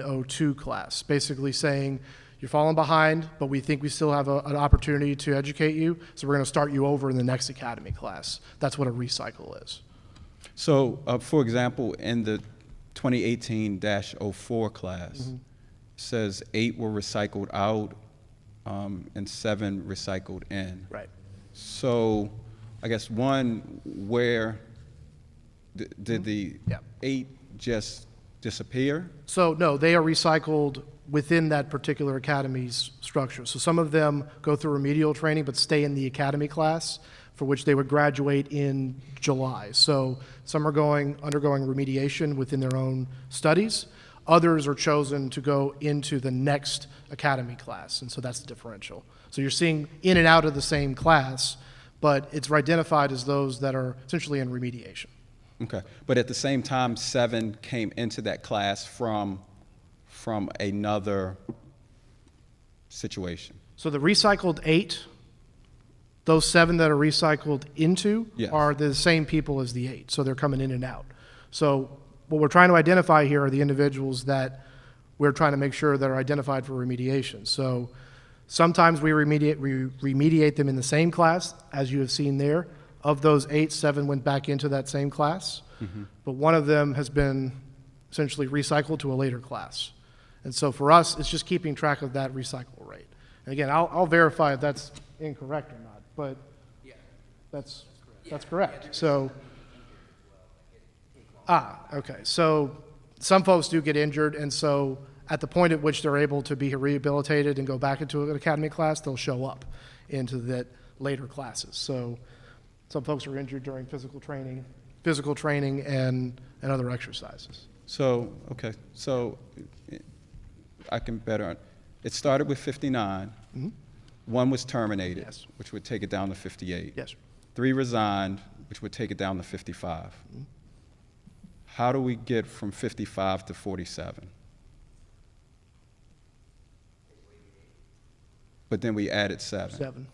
the O2 class, basically saying, you're falling behind, but we think we still have a, an opportunity to educate you, so we're going to start you over in the next academy class. That's what a recycle is. So, uh, for example, in the 2018-04 class, says eight were recycled out um, and seven recycled in. Right. So, I guess one, where d- did the Yep. eight just disappear? So, no, they are recycled within that particular academy's structure. So some of them go through remedial training but stay in the academy class for which they would graduate in July. So some are going, undergoing remediation within their own studies. Others are chosen to go into the next academy class, and so that's the differential. So you're seeing in and out of the same class, but it's identified as those that are essentially in remediation. Okay, but at the same time, seven came into that class from, from another situation. So the recycled eight, those seven that are recycled into Yes. are the same people as the eight. So they're coming in and out. So what we're trying to identify here are the individuals that we're trying to make sure that are identified for remediation. So sometimes we remediate, we remediate them in the same class, as you have seen there. Of those eight, seven went back into that same class, but one of them has been essentially recycled to a later class. And so for us, it's just keeping track of that recycle rate. And again, I'll, I'll verify if that's incorrect or not, but that's, that's correct. So, ah, okay. So some folks do get injured, and so at the point at which they're able to be rehabilitated and go back into an academy class, they'll show up into that later classes. So some folks are injured during physical training, physical training and, and other exercises. So, okay, so it- I can better, it started with 59. One was terminated. Yes. Which would take it down to 58. Yes. Three resigned, which would take it down to 55. How do we get from 55 to 47? But then we added seven. Seven.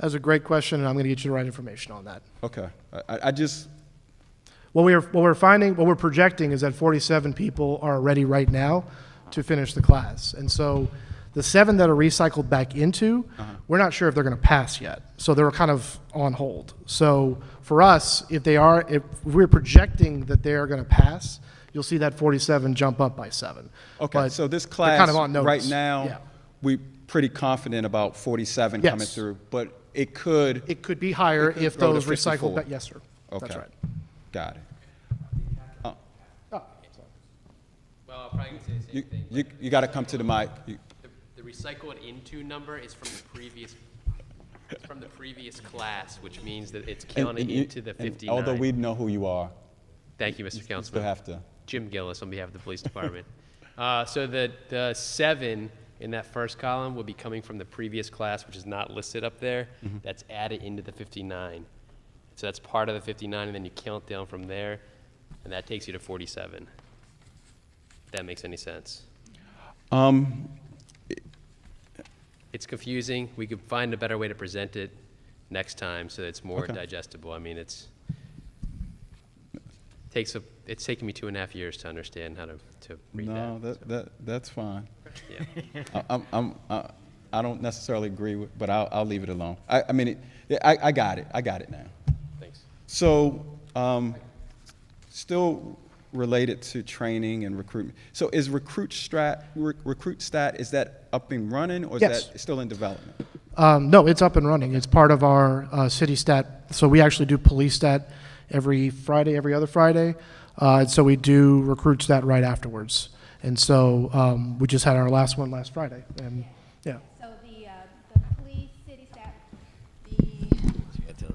That's a great question, and I'm going to get you the right information on that. Okay, I- I, I just, What we're, what we're finding, what we're projecting is that 47 people are ready right now to finish the class. And so the seven that are recycled back into, Uh-huh. we're not sure if they're going to pass yet. So they're kind of on hold. So for us, if they are, if we're projecting that they are going to pass, you'll see that 47 jump up by seven. okay, But so this they're class. kind of on Right notice. Yeah. now, we pretty confident about 47 coming Yes. through. But it could. It could be higher could if go to those recycled, 54. ba- yes, sir. Okay. That's right. Got it. Oh, Well, I'll probably say the You, same thing. you, you gotta come to the mic. You- The- The recycled into number is from the previous, it's from the previous class, which means that it's and- counting and you- into the and Although we 59. know who you are, Thank you, Mr. you still Councilman. have to, Jim Gillis on behalf of the police department. Uh, So the, the seven in that first column would be coming from the previous class, which is not listed up there. Mm-hmm. That's added into the 59. So that's part of the 59, and then you count down from there, and that takes you to 47. If that makes any sense. um, It's confusing. We could find a better way to present it next time so that it's more Okay. digestible. I mean, it's, takes a, it's taken me two and a half years to understand how to, to read no, that. that, that, that's fine. Yeah. I- I'm, I'm, I- I don't necessarily agree with, but I'll, I'll leave it alone. I, I mean, it- yeah, I, I got it, I got it now. Thanks. So, um, still related to training and recruitment. So is recruit strat, Rec- recruit stat, is that up and running or is Yes. that still in development? Um, no, it's up and running. It's part of our uh, city stat. So we actually do police stat every Friday, every other Friday. Uh, and so we do recruit stat right afterwards. And so um, we just had our last one last Friday. And yeah. So the, uh, the police, city staff, the.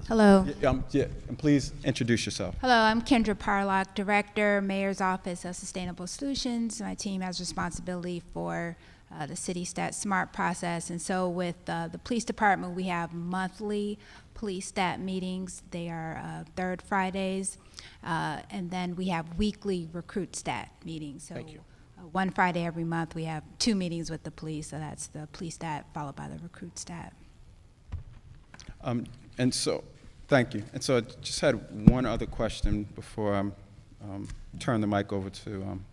Hello. Yeah, um, yeah, and please introduce yourself. Hello, I'm Kendra Parlock, Director, Mayor's Office of Sustainable Solutions. My team has responsibility for uh, the city stat smart process. And so with uh, the police department, we have monthly police stat meetings. They are uh, third Fridays. Uh, And then we have weekly recruit stat meetings. So uh, One Friday every month, we have two meetings with the police. So that's the police stat followed by the recruit stat. Um, And so, thank you. And so I just had one other question before I um, turn the mic over to um,